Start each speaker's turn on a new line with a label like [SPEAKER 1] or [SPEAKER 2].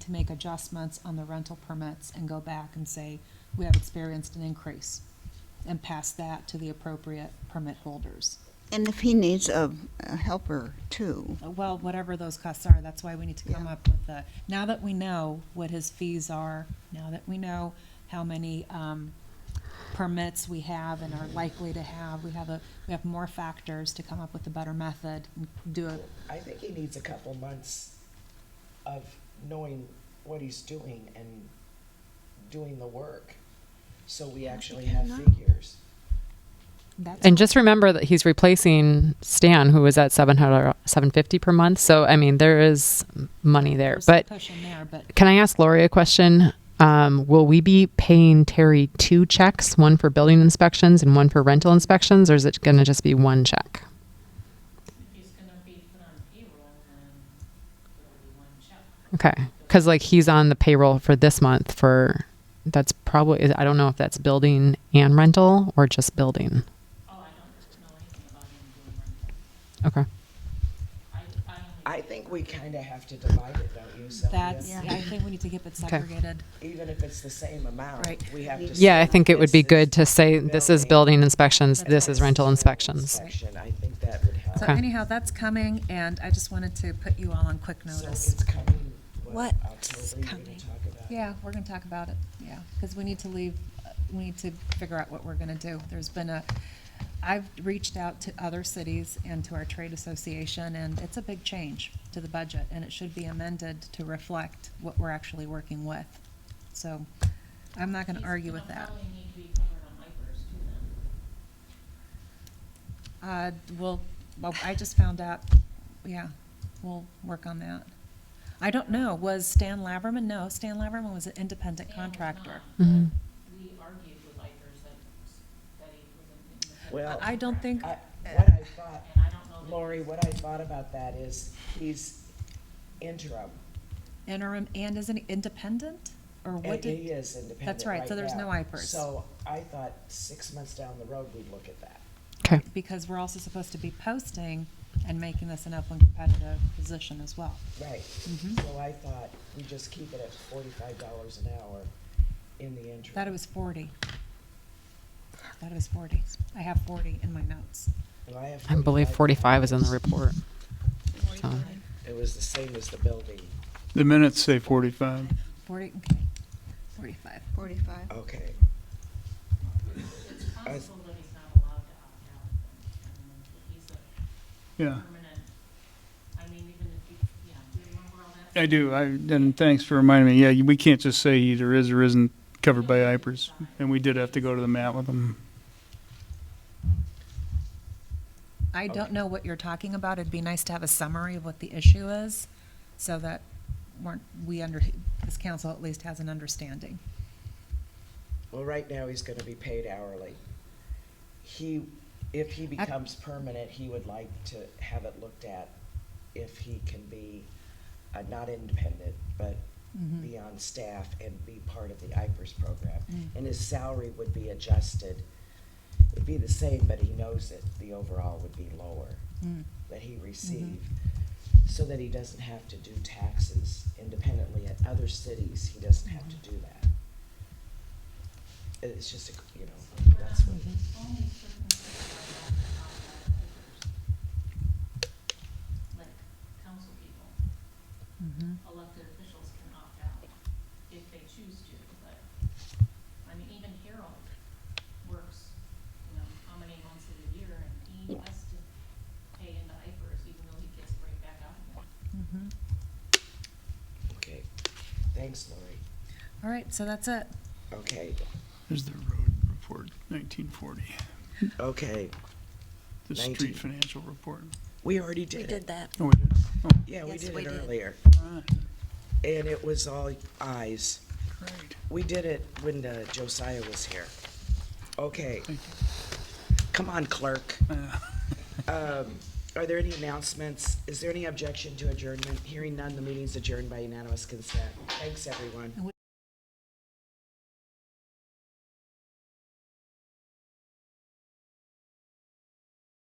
[SPEAKER 1] to make adjustments on the rental permits and go back and say, we have experienced an increase, and pass that to the appropriate permit holders.
[SPEAKER 2] And if he needs a, a helper too,
[SPEAKER 1] Uh, Well, whatever those costs are, that's why we need to come
[SPEAKER 2] Yeah.
[SPEAKER 1] up with the, now that we know what his fees are, now that we know how many, um, permits we have and are likely to have, we have a, we have more factors to come up with a better method, and do a
[SPEAKER 3] I think he needs a couple months of knowing what he's doing and doing the work, so we actually have figures.
[SPEAKER 1] that's.
[SPEAKER 4] And just remember that he's replacing Stan, who was at 700, 750 per month. So, I mean, there is money there.
[SPEAKER 1] there's some
[SPEAKER 4] But
[SPEAKER 1] Cushion there, but
[SPEAKER 4] can I ask Lori a question? Um, will we be paying Terry two checks, one for building inspections and one for rental inspections, or is it going to just be one check?
[SPEAKER 5] He's gonna be put on payroll and there'll be one check.
[SPEAKER 4] Okay. Because, like, he's on the payroll for this month for that's probably, I don't know if that's building and rental or just building.
[SPEAKER 5] Oh, I don't know anything about him doing rental.
[SPEAKER 4] Okay.
[SPEAKER 5] I, I
[SPEAKER 3] I
[SPEAKER 5] only.
[SPEAKER 3] think we kinda have to divide it, don't you, Sylvia?
[SPEAKER 1] that's,
[SPEAKER 2] Yeah.
[SPEAKER 1] I think we need to keep it segregated.
[SPEAKER 3] Even if it's the same amount,
[SPEAKER 1] Right.
[SPEAKER 3] we have to.
[SPEAKER 4] Yeah, I
[SPEAKER 3] say
[SPEAKER 4] think it would be
[SPEAKER 3] this is
[SPEAKER 4] good to say this is building inspections, this is rental inspections.
[SPEAKER 3] Inspection, I think that would help.
[SPEAKER 1] So
[SPEAKER 4] Okay.
[SPEAKER 1] anyhow, that's coming, and I just wanted to put you all on quick
[SPEAKER 3] So
[SPEAKER 1] notice.
[SPEAKER 3] it's coming, what,
[SPEAKER 1] What's
[SPEAKER 3] October, you're gonna
[SPEAKER 1] coming?
[SPEAKER 3] talk about?
[SPEAKER 1] Yeah, we're gonna talk about it, yeah, because we need to leave, uh, we need to figure out what we're gonna do. There's been a, I've reached out to other cities and to our trade association, and it's a big change to the budget, and it should be amended to reflect what we're actually working with. So I'm not gonna
[SPEAKER 5] he's
[SPEAKER 1] argue
[SPEAKER 5] gonna
[SPEAKER 1] with that.
[SPEAKER 5] Probably need to be covered on IFRS too then.
[SPEAKER 1] Uh, well, well, I just found out, yeah, we'll work on that. I don't know, was Stan Laverman? No, Stan Laverman was an independent
[SPEAKER 5] Dan was
[SPEAKER 1] contractor.
[SPEAKER 5] not, but
[SPEAKER 4] Mhm.
[SPEAKER 5] We argued with IFRS that, that he was in. in the-
[SPEAKER 3] Well,
[SPEAKER 1] I don't think,
[SPEAKER 3] I- What I thought
[SPEAKER 5] And I don't know. that-
[SPEAKER 3] Lori, what I thought about that is, he's interim.
[SPEAKER 1] interim and is an independent, or what
[SPEAKER 3] And
[SPEAKER 1] did?
[SPEAKER 3] he uh, is independent
[SPEAKER 1] That's right, so there's
[SPEAKER 3] now.
[SPEAKER 1] no IPERS.
[SPEAKER 3] So I thought six months down the road, we'd look at that.
[SPEAKER 4] Okay.
[SPEAKER 1] Because we're also supposed to be posting and making this an upland competitive position as well.
[SPEAKER 3] Right.
[SPEAKER 1] Mhm.
[SPEAKER 3] So I thought we just keep it at forty-five dollars an hour in the interim.
[SPEAKER 1] Thought it was forty. Thought it was forty. I have forty in my notes.
[SPEAKER 3] And I have
[SPEAKER 4] I believe 45 is in the
[SPEAKER 3] $45.
[SPEAKER 4] report. So,
[SPEAKER 3] It was the same as the building.
[SPEAKER 6] The minutes say 45.
[SPEAKER 1] Forty, okay, forty-five.
[SPEAKER 2] forty-five.
[SPEAKER 3] Okay.
[SPEAKER 5] It's
[SPEAKER 3] I-
[SPEAKER 5] possible that he's not allowed to opt out. and He's a
[SPEAKER 6] Yeah,
[SPEAKER 5] permanent, I mean, even if you, yeah, do you remember all that?
[SPEAKER 6] I do. I, and thanks for reminding me. Yeah, we can't just say either is or isn't covered by IPRS. And we did have to go to the mat with them.
[SPEAKER 1] I don't
[SPEAKER 3] Okay.
[SPEAKER 1] know what you're talking about. It'd be nice to have a summary of what the issue is so that we're we under, this council at least has an understanding.
[SPEAKER 3] Well, right now, he's gonna be paid hourly. He, if he becomes permanent, he would like to have it looked at if he can be, uh, not independent, but
[SPEAKER 7] Mm.
[SPEAKER 3] be on staff and be part of the IPERS program.
[SPEAKER 1] Mm.
[SPEAKER 3] And his salary would be adjusted. It'd be the same, but he knows that the overall would be lower
[SPEAKER 1] Mm.
[SPEAKER 3] that he received.
[SPEAKER 7] Mm-hmm.
[SPEAKER 3] So that he doesn't have to do taxes independently at other cities, he doesn't have
[SPEAKER 7] Mm-hmm.
[SPEAKER 3] to do that. It's just, a- you know, that's what,
[SPEAKER 7] Mm-hmm.
[SPEAKER 5] Only certain people are allowed to opt out of papers. Like council people,
[SPEAKER 1] Mhm.
[SPEAKER 5] elected officials can opt out if they choose to, but, I mean, even Harold works, you know, how many months of the year, and he has to pay into IFRS, even though he gets right back out of it.
[SPEAKER 1] Mhm.
[SPEAKER 3] okay. Thanks, Lori.
[SPEAKER 1] All right, so that's it.
[SPEAKER 3] Okay,
[SPEAKER 6] There's the road report, 1940.
[SPEAKER 3] okay,
[SPEAKER 6] The
[SPEAKER 3] 19.
[SPEAKER 6] street financial report.
[SPEAKER 3] we already did it.
[SPEAKER 7] that.
[SPEAKER 6] Oh, we did.
[SPEAKER 3] Yeah, we
[SPEAKER 7] Yes,
[SPEAKER 3] did
[SPEAKER 7] we
[SPEAKER 3] it
[SPEAKER 7] did.
[SPEAKER 3] earlier,
[SPEAKER 6] All right,
[SPEAKER 3] and it was all eyes.
[SPEAKER 6] great.
[SPEAKER 3] We did it when uh, Josiah was here. Okay.
[SPEAKER 6] Thank
[SPEAKER 3] Come on, clerk.
[SPEAKER 6] Uh,
[SPEAKER 3] Um, Are there any announcements? Is there any objection to adjournment? Hearing none, the meeting's adjourned by unanimous consent. Thanks, everyone.
[SPEAKER 1] And we